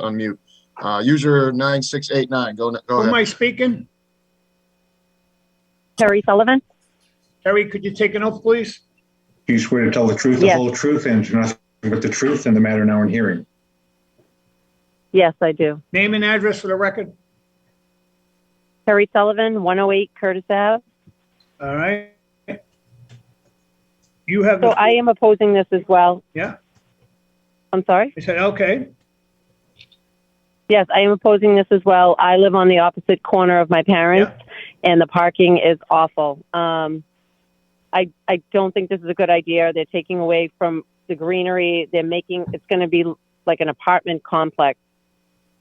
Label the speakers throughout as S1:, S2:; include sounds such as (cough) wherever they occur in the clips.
S1: on mute. Uh, user nine six eight nine, go, go
S2: Who am
S1: ahead.
S2: I speaking?
S3: Terry Sullivan?
S2: Terry, could you take an oath, please?
S4: Do you swear to tell the truth, the
S3: Yes.
S4: whole truth, and to nothing but the truth in the matter now in hearing?
S3: Yes, I do.
S2: Name and address for the record.
S3: Terry Sullivan, 108 Curtis Ave.
S2: All right. You have.
S3: So
S2: the-
S3: I am opposing this as well.
S2: Yeah.
S3: I'm sorry?
S2: I said, okay.
S3: Yes, I am opposing this as well. I live on the opposite corner of my parents, and the parking is awful. Um, I I don't think this is a good idea. They're taking away from the greenery. They're making it's going to be like an apartment complex.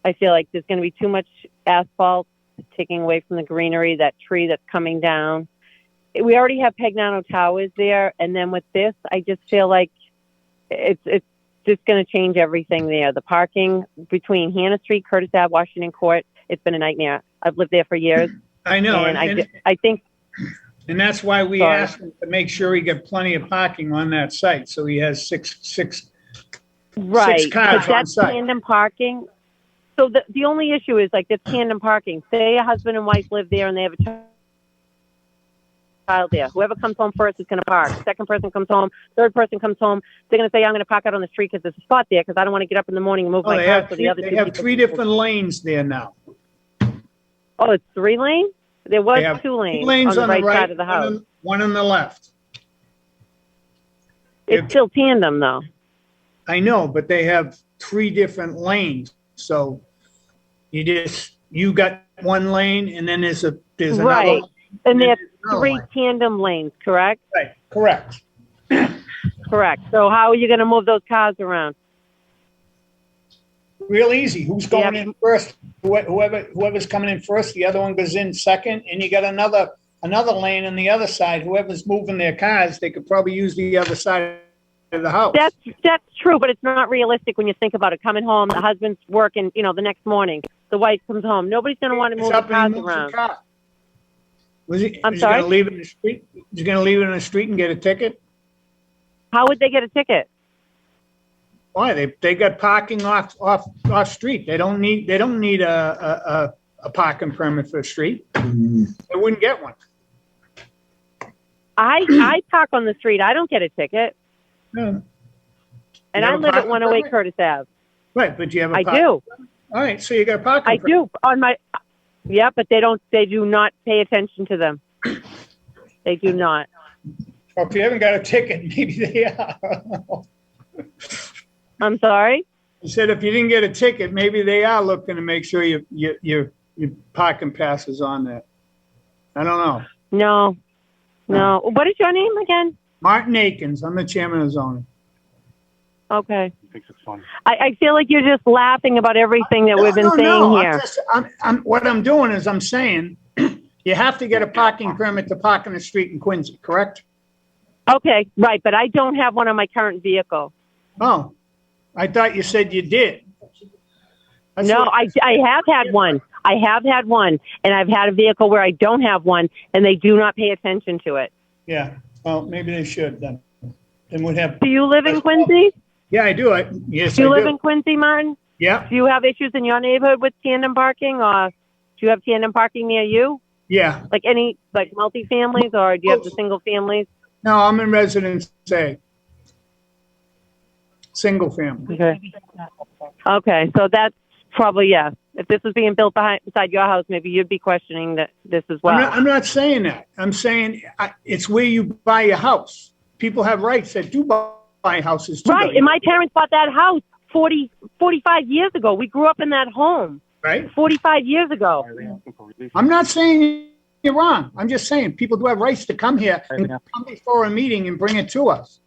S3: I feel like there's going to be too much asphalt taking away from the greenery. That tree that's coming down. We already have Pegnano Towers there, and then with this, I just feel like it's it's just going to change everything there. The parking between Hannah Street, Curtis Ave, Washington Court, it's been a nightmare. I've lived there for years,
S2: I know.
S3: and I,
S2: And,
S3: ju- I think
S2: and that's why we
S3: Sorry.
S2: asked him to make sure he got plenty of parking on that site. So he has six, six,
S3: right,
S2: cars on
S3: but that's
S2: site.
S3: tandem parking. So the the only issue is like the tandem parking. Say a husband and wife live there and they have a child. Child there. Whoever comes home first is going to park. Second person comes home. Third person comes home. They're going to say, "I'm going to park out on the street because there's a spot there because I don't want to get up in the morning and move
S2: oh,
S3: my
S2: they
S3: car."
S2: have,
S3: so
S2: three-
S3: the other
S2: they
S3: two
S2: have
S3: people
S2: three
S3: can-
S2: different lanes there now.
S3: Oh, it's three lane. There was
S2: They have
S3: two lanes,
S2: Lanes
S3: on the right, side of the
S2: one
S3: house.
S2: on- One on the left.
S3: It's
S2: If-
S3: still tandem though.
S2: I know, but they have three different lanes, so you just, you got one lane and then there's a, there's another.
S3: Right.
S2: lane, then
S3: And there's
S2: there's another
S3: three
S2: lane.
S3: tandem lanes, correct?
S2: Oh, Right, correct.
S3: Correct. So how are you going to move those cars around?
S2: Real easy, who's going
S3: Yeah.
S2: in first? Wh- Whoever, whoever's coming in first, the other one goes in second, and you got another, another lane on the other side, whoever's moving their cars, they could probably use the other side of the house.
S3: That's that's true, but it's not realistic when you think about it. Coming home, the husband's working, you know, the next morning, the wife comes home. Nobody's going to want to
S2: It's
S3: move the
S2: up and
S3: cars
S2: he moves the
S3: around.
S2: car. Was he,
S3: I'm
S2: is he gonna
S3: sorry?
S2: leave it in the street? Is he gonna leave it in the street and get a ticket?
S3: How would they get a ticket?
S2: Why? They, they got parking off, off, off street. They don't need, they don't need a, a, a, a parking permit for a street. They wouldn't get one.
S3: I
S2: (clears throat)
S3: I park on the street. I don't get a ticket,
S2: No.
S3: and
S2: You
S3: I
S2: have a
S3: live at
S2: parking
S3: 108
S2: permit?
S3: Curtis Ave.
S2: Right, but you have a.
S3: I
S2: park-
S3: do.
S2: All right, so you got a
S3: I
S2: parking. permit.
S3: do on my. Yeah, but they don't. They do not pay attention to them. They do not.
S2: Or if you haven't got a ticket, (laughs) maybe they are.
S3: I'm sorry.
S2: He said if you didn't get a ticket, maybe they are looking to make sure you, you, you, your parking pass is on there. I don't know.
S3: No, no.
S5: Hmm.
S3: What is your name again?
S2: Martin Akins, I'm the chairman of zoning.
S3: Okay.
S5: thinks it's funny.
S3: I, I feel like you're just laughing about everything that we've been
S2: No, no,
S3: saying
S2: no, I'm
S3: here.
S2: just- I'm, I'm, what I'm doing is I'm saying, (clears throat) you have to get a parking permit to park on the street in Quincy, correct?
S3: Okay, right, but I don't have one on my current vehicle.
S2: Oh, I thought you said you did. That's
S3: no,
S2: what-
S3: I, I have had one. I have had one, and I've had a vehicle where I don't have one, and they do not pay attention to it.
S2: Yeah, well, maybe they should then. Then we'd have,
S3: Do you live in
S2: That's
S3: Quincy?
S2: yeah, I do, I, yes,
S3: Do you
S2: I
S3: live
S2: do.
S3: in Quincy, Martin?
S2: Yeah,
S3: Do you have issues in your neighborhood with tandem parking, or do you have tandem parking near you?
S2: yeah.
S3: Like any, like multi-families, or do you have the
S2: Oh.
S3: single families?
S2: No, I'm in residence A. Single family.
S3: Okay. Okay, so that's probably, yeah. If this was being built behind, beside your house, maybe you'd be questioning that this as well.
S2: I'm not, I'm not saying that. I'm saying I- it's where you buy your house. People have rights that do buy- buy houses too.
S3: Right.
S2: though,
S3: And my parents bought that house 40, 45 years ago. We grew up in that home
S2: Right?
S3: 45 years ago.
S5: Why are they asking for relief?
S2: I'm not saying you're wrong. I'm just saying people do have rights to come here and come before a meeting and bring it to us.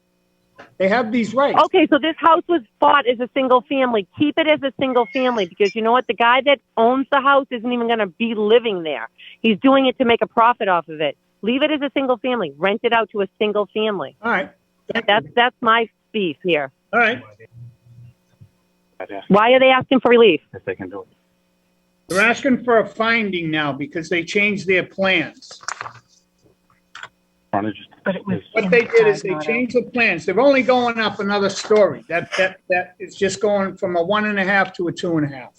S2: They have these rights.
S3: Okay, so this house was bought as a single family. Keep it as a single family because you know what? The guy that owns the house isn't even going to be living there. He's doing it to make a profit off of it. Leave it as a single family. Rent it out to a single family.
S2: All right. Thank
S3: That's
S2: you.
S3: that's my beef here.
S2: All right.
S5: I'd ask
S3: Why are they asking for relief?
S5: if they can do it.
S2: They're asking for a finding now because they changed their plans.
S5: Frontage is
S6: but it was.
S2: What they did is
S6: inside,
S2: they
S6: not out.
S2: changed the plans. They're only going up another story. That, that, that is just going from a one and a half to a two and a half.